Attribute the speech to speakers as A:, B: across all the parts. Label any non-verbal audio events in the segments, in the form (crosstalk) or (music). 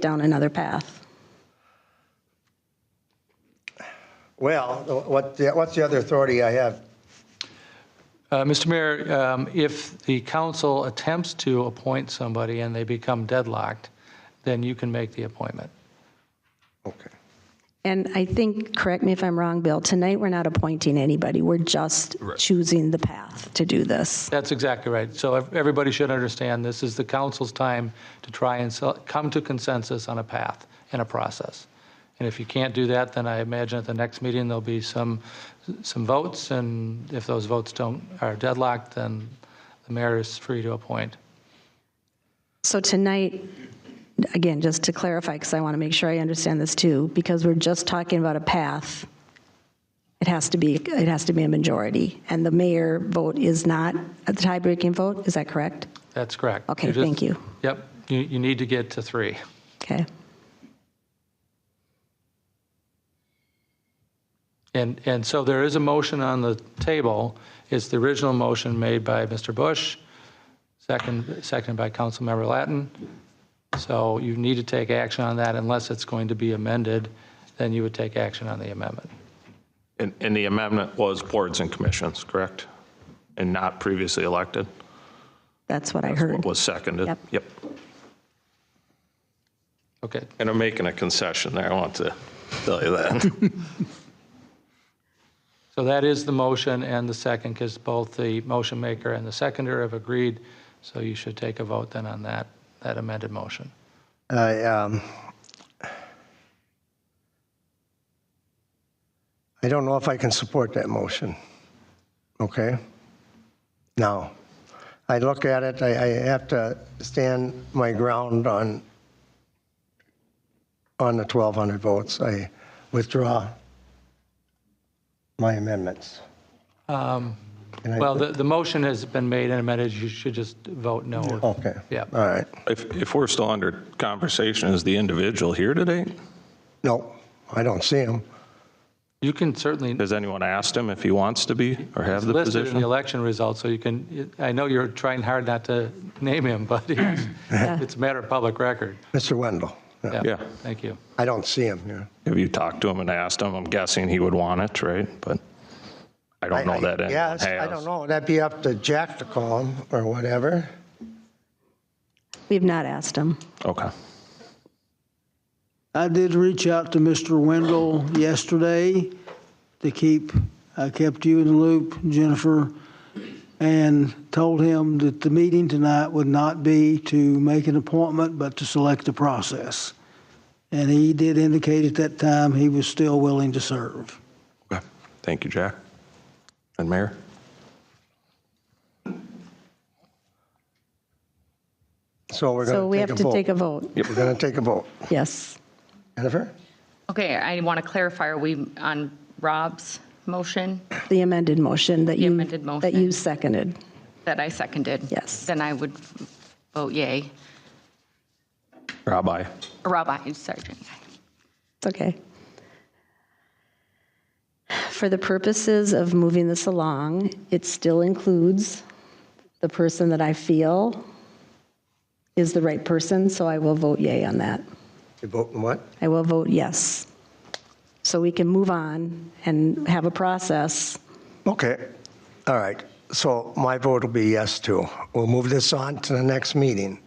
A: down another path.
B: Well, what, the- what's the other authority I have?
C: Uh, Mr. Mayor, um, if the council attempts to appoint somebody and they become deadlocked, then you can make the appointment.
B: Okay.
A: And I think, correct me if I'm wrong, Bill, tonight we're not appointing anybody. We're just choosing the path to do this.
C: That's exactly right. So ev- everybody should understand, this is the council's time to try and sel- come to consensus on a path and a process. And if you can't do that, then I imagine at the next meeting, there'll be some, some votes, and if those votes don't, are deadlocked, then the mayor is free to appoint.
A: So tonight, again, just to clarify, because I want to make sure I understand this too, because we're just talking about a path, it has to be, it has to be a majority. And the mayor vote is not a tie-breaking vote, is that correct?
C: That's correct.
A: Okay,
C: just-
A: thank you.
C: Yep, you, you need to get to three.
A: Okay.
C: And, and so there is a motion on the table. It's the original motion made by Mr. Bush, second, seconded by Councilmember Latin. So you need to take action on that unless it's going to be amended, then you would take action on the amendment.
D: And, and the amendment was boards and commissions, correct? And not previously elected?
A: That's what I heard.
D: Was seconded?
A: Yep.
C: Okay,
D: And I'm making a concession there, I want to tell you that.
C: so that is the motion and the second, because both the motion maker and the seconder have agreed, so you should take a vote then on that, that amended motion.
B: I, um, I don't know if I can support that motion. Okay? Now, I look at it, I, I have to stand my ground on, on the 1,200 votes. I withdraw my amendments. Um,
C: Well, the, the motion has been made and amended, you should just vote no.
B: Okay.
C: Yeah.
B: All right.
D: If, if we're still under conversation, is the individual here today?
B: No, I don't see him.
C: You can certainly,
D: Has anyone asked him if he wants to be or have
C: listed in
D: the
C: the
D: position?
C: election results, so you can, I know you're trying hard not to name him, but (laughs) it's it's a matter of public record.
B: Mr. Wendell. Yeah.
C: Yeah,
D: Yeah.
C: Thank you.
B: I don't see him here.
D: Have you talked to him and asked him? I'm guessing he would want it, right? But I don't know that anyone
B: Yes,
D: has.
B: I don't know. That'd be up to Jack to call him or whatever.
A: We've not asked him.
D: Okay.
E: I did reach out to Mr. Wendell yesterday to keep, I kept you in the loop, Jennifer, and told him that the meeting tonight would not be to make an appointment, but to select the process. And he did indicate at that time he was still willing to serve.
D: Okay. Thank you, Jack. And Mayor?
B: So we're
A: So we
B: going to
A: have
B: take a
A: to take a
B: vote.
A: vote.
B: We're going to take a vote.
A: Yes.
B: Jennifer?
F: Okay, I want to clarify, are we on Rob's motion
A: The amended motion that you.
F: amended
A: That
F: motion.
A: you seconded.
F: that I seconded?
A: Yes.
F: Then I would vote yay.
D: Rob, aye.
F: Rob, aye, Sergeant. aye.
A: It's okay. For the purposes of moving this along, it still includes the person that I feel is the right person, so I will vote yay on that.
B: You voting what?
A: I will vote yes. So we can move on and have a process.
B: Okay. All right. So my vote will be yes too. We'll move this on to the next meeting.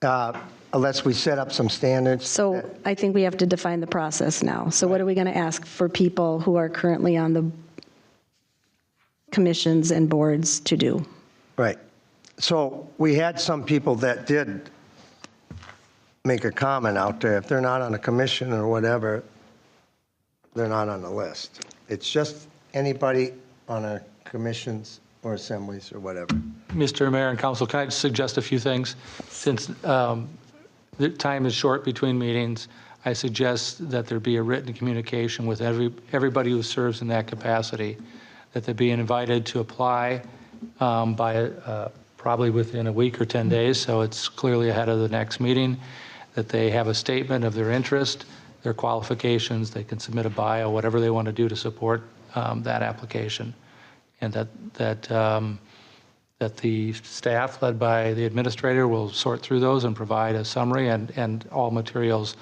B: Uh, Unless we set up some standards.
A: So I think we have to define the process now. So what are we going to ask for people who are currently on the commissions and boards to do?
B: Right. So we had some people that did make a comment out there. If they're not on a commission or whatever, they're not on the list. It's just anybody on our commissions or assemblies or whatever.
C: Mr. Mayor and Council, can I just suggest a few things? Since um, the time is short between meetings, I suggest that there be a written communication with every, everybody who serves in that capacity, that they be invited to apply um, by, uh, probably within a week or 10 days, so it's clearly ahead of the next meeting, that they have a statement of their interest, their qualifications, they can submit a bio, whatever they want to do to support um, that application, and that, that um, that the staff led by the administrator will sort through those and provide a summary and, and all materials